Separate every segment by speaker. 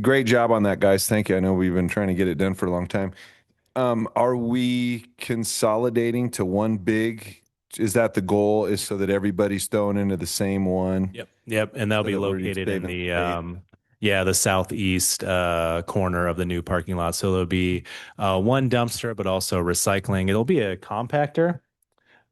Speaker 1: great job on that, guys. Thank you. I know we've been trying to get it done for a long time. Um, are we consolidating to one big? Is that the goal? Is so that everybody's thrown into the same one?
Speaker 2: Yep. Yep. And that'll
Speaker 1: So
Speaker 2: be
Speaker 1: that we're just
Speaker 2: located in
Speaker 1: saving
Speaker 2: the
Speaker 1: space.
Speaker 2: um yeah, the southeast uh corner of the new parking lot. So there'll be uh one dumpster, but also recycling. It'll be a compactor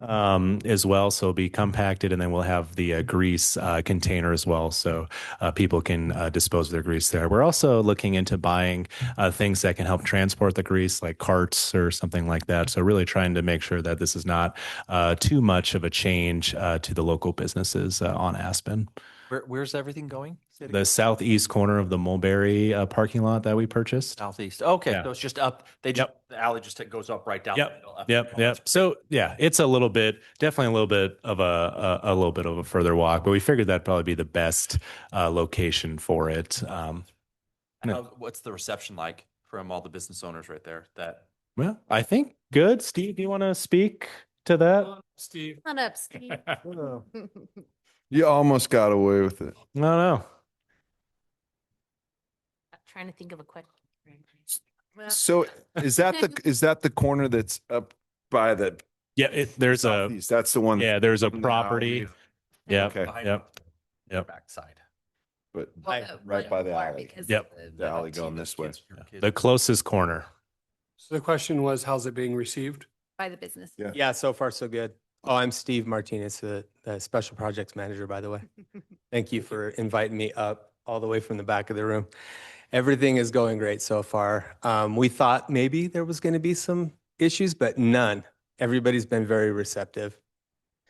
Speaker 2: um as well. So it'll be compacted and then we'll have the uh, grease uh container as well. So uh, people can uh, dispose of their grease there. We're also looking into buying uh, things that can help transport the grease, like carts or something like that. So really trying to make sure that this is not uh, too much of a change uh, to the local businesses uh, on Aspen.
Speaker 3: Where, where's everything going? Say it
Speaker 2: The
Speaker 3: again.
Speaker 2: southeast corner of the Mulberry uh, parking lot that we purchased.
Speaker 3: Southeast. Okay,
Speaker 2: Yeah.
Speaker 3: so it's just up, they just, the alley just goes up right down. the
Speaker 2: Yep,
Speaker 3: middle up-
Speaker 2: Yep,
Speaker 3: oh,
Speaker 2: yep. So yeah, it's a little bit, definitely a little bit of a a, a little bit of a further walk, but we figured that'd probably be the best uh, location for it. Um,
Speaker 3: And
Speaker 2: No.
Speaker 3: how- What's the reception like from all the business owners right there that?
Speaker 2: well, I think good. Steve, do you want to speak to that?
Speaker 4: Steve.
Speaker 5: Not up, Steve.
Speaker 2: No,
Speaker 1: You almost got away with it.
Speaker 2: no.
Speaker 5: Trying to think of a question. Well,
Speaker 1: So is that the is that the corner that's up by the
Speaker 2: Yeah, it, there's a
Speaker 1: southeast? That's the one.
Speaker 2: yeah, there's a
Speaker 1: No.
Speaker 2: property. Yep,
Speaker 1: Okay.
Speaker 2: yep, yep.
Speaker 3: Backside.
Speaker 1: But
Speaker 3: Hi,
Speaker 5: well,
Speaker 1: right by the
Speaker 5: far,
Speaker 1: alley.
Speaker 5: because
Speaker 2: Yep.
Speaker 5: of
Speaker 1: The alley going this way.
Speaker 2: The closest corner.
Speaker 4: So the question was, how's it being received?
Speaker 5: By the business.
Speaker 1: Yeah.
Speaker 6: Yeah, so far so good. Oh, I'm Steve Martinez, the, the special projects manager, by the way. Thank you for inviting me up all the way from the back of the room. Everything is going great so far. Um, we thought maybe there was going to be some issues, but none. Everybody's been very receptive.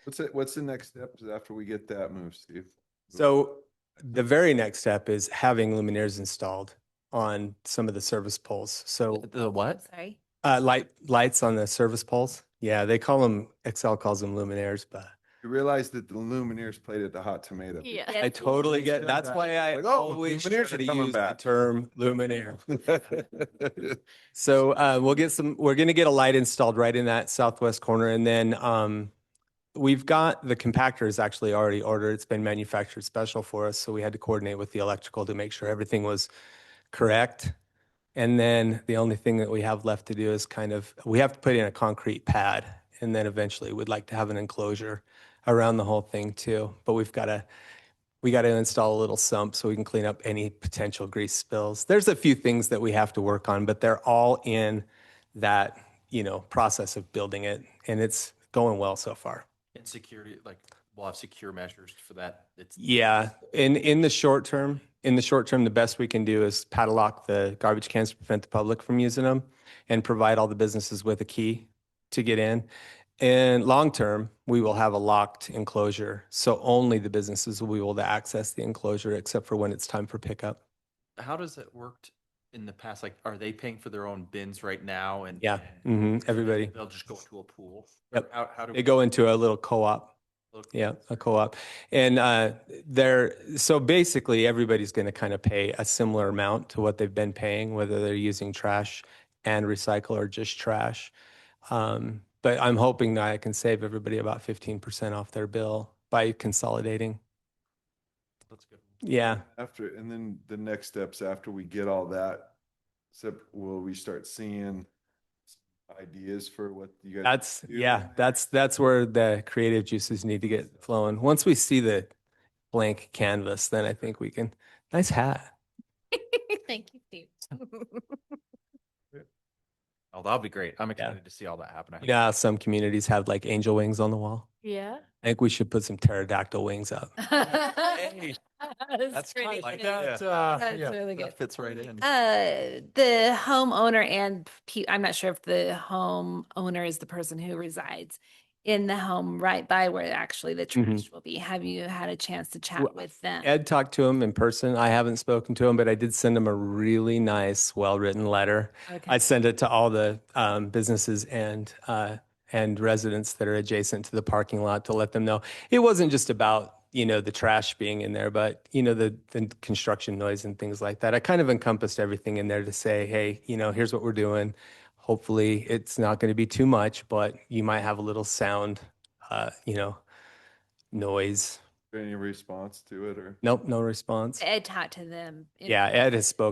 Speaker 1: What's it? What's the next step after we get that move, Steve?
Speaker 6: So the very next step is having luminaires installed on some of the service poles. So
Speaker 3: The what?
Speaker 5: Sorry.
Speaker 6: uh, light lights on the service poles. Yeah, they call them Excel calls them luminaires, but
Speaker 1: You realize that the Lumineers played at the Hot Tomato.
Speaker 5: Yeah.
Speaker 6: I totally get.
Speaker 1: said
Speaker 6: That's
Speaker 1: that.
Speaker 6: why I
Speaker 1: Like, oh,
Speaker 6: always try
Speaker 1: luminaires are
Speaker 6: to
Speaker 1: coming
Speaker 6: use
Speaker 1: back.
Speaker 6: the term luminaire. So uh, we'll get some. We're going to get a light installed right in that southwest corner, and then um, we've got the compactor is actually already ordered. It's been manufactured special for us, so we had to coordinate with the electrical to make sure everything was correct. And then the only thing that we have left to do is kind of we have to put in a concrete pad, and then eventually we'd like to have an enclosure around the whole thing too. But we've got to we got to install a little sump so we can clean up any potential grease spills. There's a few things that we have to work on, but they're all in that, you know, process of building it and it's going well so far.
Speaker 3: And security, like, we'll have secure measures for that. It's.
Speaker 6: Yeah, in in the short term, in the short term, the best we can do is padlock the garbage cans to prevent the public from using them, and provide all the businesses with a key to get in. And long term, we will have a locked enclosure, so only the businesses will be able to access the enclosure, except for when it's time for pickup.
Speaker 3: How does it worked in the past? Like, are they paying for their own bins right now and?
Speaker 6: Yeah,
Speaker 3: and
Speaker 6: mhm, everybody.
Speaker 3: They'll just go into a pool?
Speaker 6: Yep.
Speaker 3: Or How, how do?
Speaker 6: They go into a little co-op. Yeah, a co-op. And uh, they're so basically everybody's going to kind of pay a similar amount to what they've been paying, whether they're using trash and recycle or just trash. Um, but I'm hoping that I can save everybody about 15% off their bill by consolidating.
Speaker 3: That's good.
Speaker 6: Yeah.
Speaker 1: After and then the next steps after we get all that, except will we start seeing ideas for what you guys?
Speaker 6: That's
Speaker 1: do
Speaker 6: yeah,
Speaker 1: in there.
Speaker 6: that's that's where the creative juices need to get flowing. Once we see the blank canvas, then I think we can. Nice hat.
Speaker 5: Thank you, Steve.
Speaker 3: Oh, that'll be great. I'm excited to see all that happen. I hope-
Speaker 6: Yeah, some communities have like angel wings on the wall.
Speaker 5: Yeah.
Speaker 6: I think we should put some pterodactyl wings up.
Speaker 5: That's
Speaker 3: kinda
Speaker 5: pretty
Speaker 3: like
Speaker 5: good.
Speaker 3: that.
Speaker 5: That's really good.
Speaker 3: That fits right in.
Speaker 5: Uh, the homeowner and pe- I'm not sure if the homeowner is the person who resides in the home right by where actually the
Speaker 6: Mhm.
Speaker 5: trash will be. Have you had a chance to chat
Speaker 6: Well,
Speaker 5: with them?
Speaker 6: Ed talked to him in person. I haven't spoken to him, but I did send him a really nice, well-written letter.
Speaker 5: Okay.
Speaker 6: I sent it to all the um, businesses and uh, and residents that are adjacent to the parking lot to let them know it wasn't just about you know the trash being in there, but you know the the construction noise and things like that. I kind of encompassed everything in there to say, hey, you know, here's what we're doing. Hopefully, it's not going to be too much, but you might have a little sound, uh, you know, noise.
Speaker 1: Any response to it or?
Speaker 6: Nope, no response.
Speaker 5: Eh, Ed talked to them. in
Speaker 6: Yeah, Ed has spoken.